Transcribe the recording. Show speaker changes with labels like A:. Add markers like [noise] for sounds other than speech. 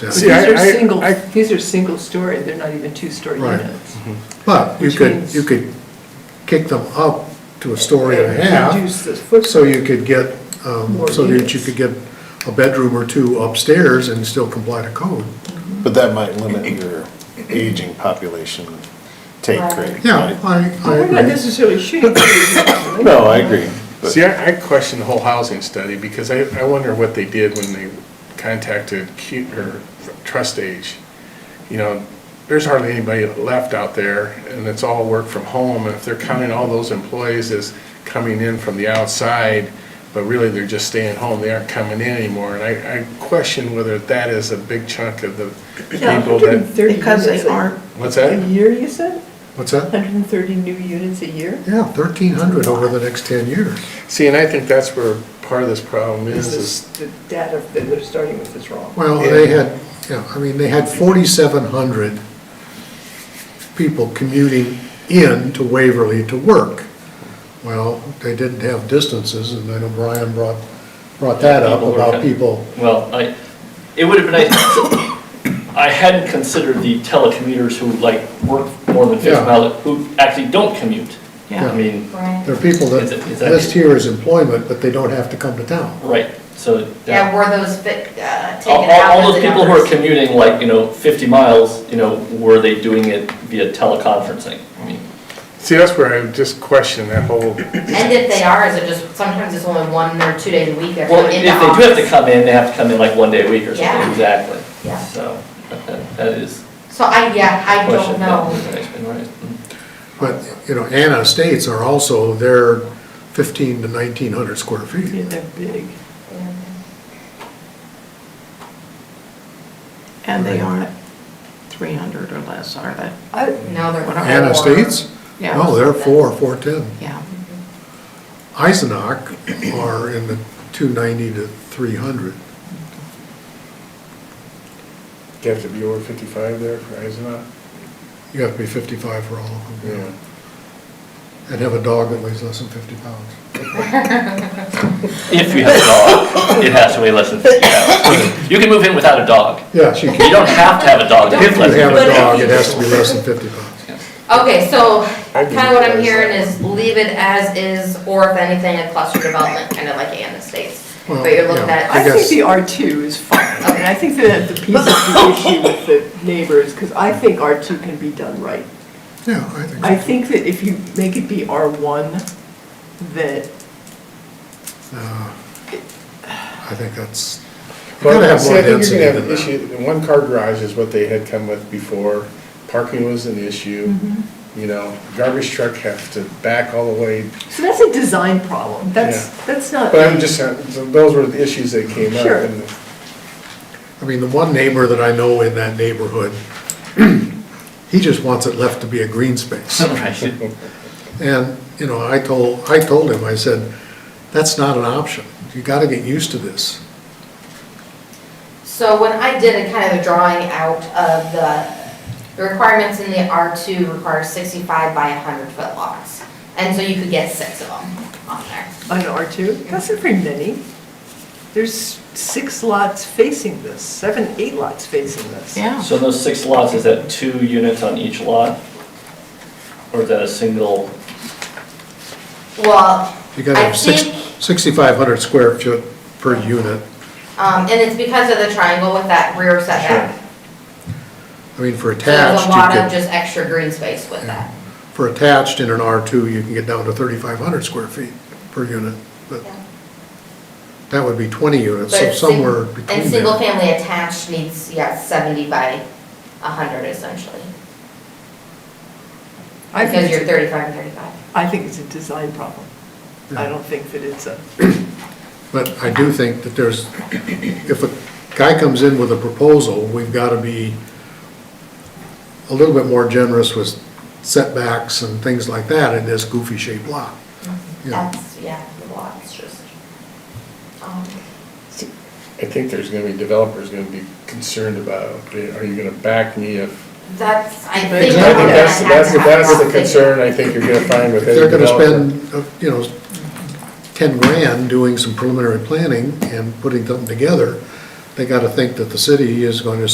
A: down.
B: But
C: See, I-
B: These are
C: I-
B: single,
C: I-
B: these are single-story, they're not even two-story
A: Right. Mm-hmm.
B: units.
A: But you
B: Which
A: could,
B: means-
A: you could kick them up to a story and a half,
B: Reduce the footprint.
A: so you could get, um,
B: More
A: so that you
B: units.
A: could get a bedroom or two upstairs and still comply to code.
C: But that might limit your aging population take rate.
A: Yeah,
C: right?
A: I, I
B: Well, We're not
A: agree.
B: necessarily shooting.
C: No, I agree. but-
D: See, I, I question the whole housing study because I, I wonder what they did when they contacted Q, or Trust Age. You know, there's hardly anybody left out there and it's all work from home. And if they're counting all those employees as coming in from the outside, but really they're just staying home, they aren't coming in anymore. And I, I question whether that is a big chunk of the
B: Yeah,
D: people that,
B: 130
E: Because they
B: units a-
E: aren't.
D: what's
B: A
D: that?
B: year, you said?
A: What's that?
B: 130 new units a year?
A: Yeah, thirteen hundred over the next ten years.
D: See, and I think that's where part of this problem is, is
B: This is, the data that they're starting with is wrong.
A: Well, they had, yeah, I mean, they had forty-seven hundred people commuting in to Waverly to work. Well, they didn't have distances, and I know Brian brought, brought that up
F: People were
A: about
F: kind-
A: people.
F: Well, I, it would have been nice, [coughs] I hadn't considered the telecommuters who like work more than
A: Yeah.
F: fifty mile, who actually don't commute. I mean,
A: There are people that
F: Is it- is that-
A: list here as employment, but they don't have to come to town.
F: right, so.
E: Yeah, were those fit, uh, taken
F: All,
E: out
F: all
E: of
F: those
E: the
F: people who are
E: numbers?
F: commuting like, you know, fifty miles, you know, were they doing it via teleconferencing? I mean,
D: see, that's where I just question that whole
E: And if they are, is it just, sometimes it's only one or two days a week they're
F: Well,
E: coming
F: if
E: into
F: they do have to
E: office.
F: come in, they have to come in like one day a week or
E: Yeah.
F: something, exactly.
E: Yeah.
F: So, but that, that is
E: So I, yeah, I
F: a question.
E: don't
F: that
E: know.
F: was an expert, right.
A: But, you know, Anna Estates are also, they're fifteen to nineteen hundred square
B: Yeah,
A: feet.
B: they're big.
G: And they aren't 300 or less, are they?
E: No, they're.
A: Anna
E: four.
A: Estates?
G: Yeah.
A: No, they're four, four-ten.
G: Yeah.
A: Eisenach are in the two ninety to three hundred.
D: You have to be over 55 there for Eisenach?
A: You have to be fifty-five for all of them.
D: Yeah.
A: And have a dog that weighs less than fifty pounds.
F: If you have a dog, it has to weigh less than fifty pounds. You can move in without a dog.
A: Yes, you
F: You
A: can.
F: don't have to have a dog. to
A: If you
F: live
A: have a
E: But if
A: dog,
E: you-
A: it has to be less [laughs] than fifty pounds.
E: Okay, so
D: I
E: kind of what I'm
D: didn't realize
E: hearing
D: that.
E: is leave it as is, or if anything, a cluster development, kind of like Anna Estates.
A: Well,
E: But you're looking
A: yeah.
E: at,
B: I
A: I guess-
B: think the R2 is fine, and I think that the piece of the
E: [laughs]
B: issue with the neighbors, because I think R2 can be done right.
A: Yeah, I think
B: I
A: so.
B: think that if you make it be R1, that
A: No, I think that's, you gotta
D: Well,
A: have
D: see,
A: more
D: I think you're
A: density
D: gonna have
A: than
D: an
A: that.
D: issue, one car garage is what they had come with before, parking was an issue, you know, garbage truck have to back all the way.
B: So that's a design problem. That's,
D: Yeah.
B: that's not.
D: But I'm just, saying, those were the issues that came up.
B: Sure.
D: and
A: I mean, the one neighbor that I know in that neighborhood, [clears throat] he just wants it left to be a green space.
F: Right.
A: And, you know, I told, I told him, I said, that's not an option. You gotta get used to this.
E: so when I did a kind of a drawing out of the, the requirements in the R2 require 65 by 100 foot lots. And so you could get six of them on there.
B: On R2, that's not very many. There's six lots facing this, seven, eight lots facing this.
G: Yeah.
F: So in those six lots, is that two units on each lot? Or is that a single?
E: Well,
A: You gotta
E: I
A: have six,
E: think-
A: sixty-five hundred square foot per unit.
E: um, and it's because of the triangle with that rear setback.
A: I mean, for
E: So there's
A: attached,
E: a
A: you
E: lot
A: could.
E: of just extra green space with that.
A: For attached in an R2, you can get down to 3,500 square feet per unit, but that would be 20 units,
E: But
A: so
E: it's sing-
A: somewhere between
E: And single
A: there.
E: family attached needs, yeah, seventy by hundred essentially.
B: I think,
E: Because you're
B: it's-
E: thirty-five and thirty-five.
B: I think it's a design problem. I
A: Yeah.
B: don't think that it's a,
A: But I do think that there's, if a guy comes in with a proposal, we've got to be a little bit more generous with setbacks and things like that in this goofy shaped lot. you know.
E: Mm-hmm. That's, yeah, the lot's just. um,
D: I think there's gonna be developers gonna be concerned about, are you gonna back me if?
E: That's, I
D: I
E: think.
D: think
E: we're gonna
D: that's,
E: have
D: that's,
E: to have
D: that's the
E: conversation.
D: concern I think you're gonna find with
A: If
D: any
A: they're going to
D: developer.
A: spend, uh, you know, 10 grand doing some preliminary planning and putting something together, they got to think that the city is going to